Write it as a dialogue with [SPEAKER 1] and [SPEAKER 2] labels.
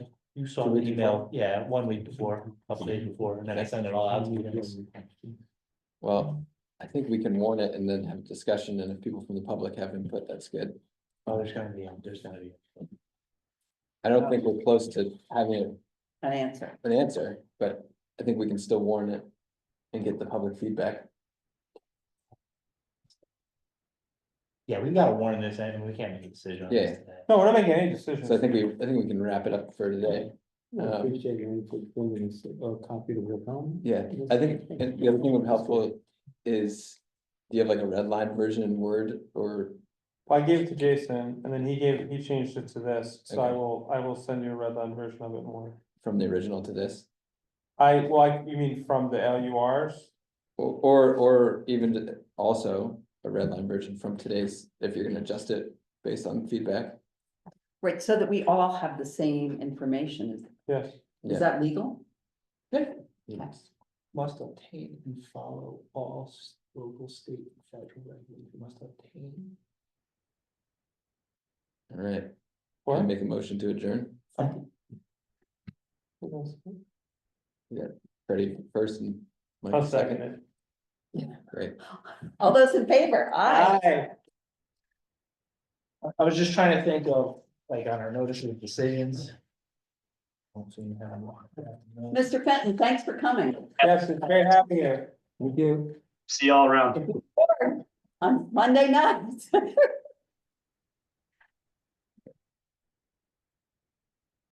[SPEAKER 1] You saw
[SPEAKER 2] Two
[SPEAKER 1] the
[SPEAKER 2] weeks
[SPEAKER 1] email, yeah, one week before, couple days before, and then I sent it all out. to you guys.
[SPEAKER 2] Well, I think we can warn it and then have a discussion, and if people from the public have input, that's good.
[SPEAKER 1] Oh, there's gonna be, there's gonna be.
[SPEAKER 2] I don't think we're close to having
[SPEAKER 3] an answer.
[SPEAKER 2] an answer, but I think we can still warn it and get the public feedback.
[SPEAKER 1] Yeah, we gotta warn this, I mean, we can't make a decision. on this
[SPEAKER 2] Yeah.
[SPEAKER 1] today.
[SPEAKER 4] No, we're not making any decisions.
[SPEAKER 2] So I think we, I think we can wrap it up for today.
[SPEAKER 5] I
[SPEAKER 2] Um,
[SPEAKER 5] appreciate your input, when it's a copy of your comment.
[SPEAKER 2] Yeah, I think, and the other thing would be helpful is, do you have like a red line version in Word or,
[SPEAKER 4] Well, I gave it to Jason and then he gave, he changed it to this, so I
[SPEAKER 2] Okay.
[SPEAKER 4] will, I will send you a red line version of it more.
[SPEAKER 2] from the original to this?
[SPEAKER 4] I, well, I, you mean from the LURs?
[SPEAKER 2] Or, or, or even to- also a red line version from today's, if you're gonna adjust it based on feedback?
[SPEAKER 3] Right, so that we all have the same information.
[SPEAKER 4] Yes.
[SPEAKER 3] Is-
[SPEAKER 2] Yeah.
[SPEAKER 3] Is that legal?
[SPEAKER 5] Must obtain and follow all s- local, state, and federal regulations, must obtain.
[SPEAKER 2] All right,
[SPEAKER 4] What?
[SPEAKER 2] I make a motion to adjourn, Freddie first and Mike
[SPEAKER 4] I'll second
[SPEAKER 2] second,
[SPEAKER 4] it.
[SPEAKER 2] great,
[SPEAKER 3] All those in favor? Aye.
[SPEAKER 1] I- I was just trying to think of, like, on our notice of decisions. Don't seem to have one.
[SPEAKER 3] Mr. Fenton, thanks for coming.
[SPEAKER 4] Yes, it's very happy here.
[SPEAKER 5] Thank you.
[SPEAKER 6] See y'all around.
[SPEAKER 3] On Monday night.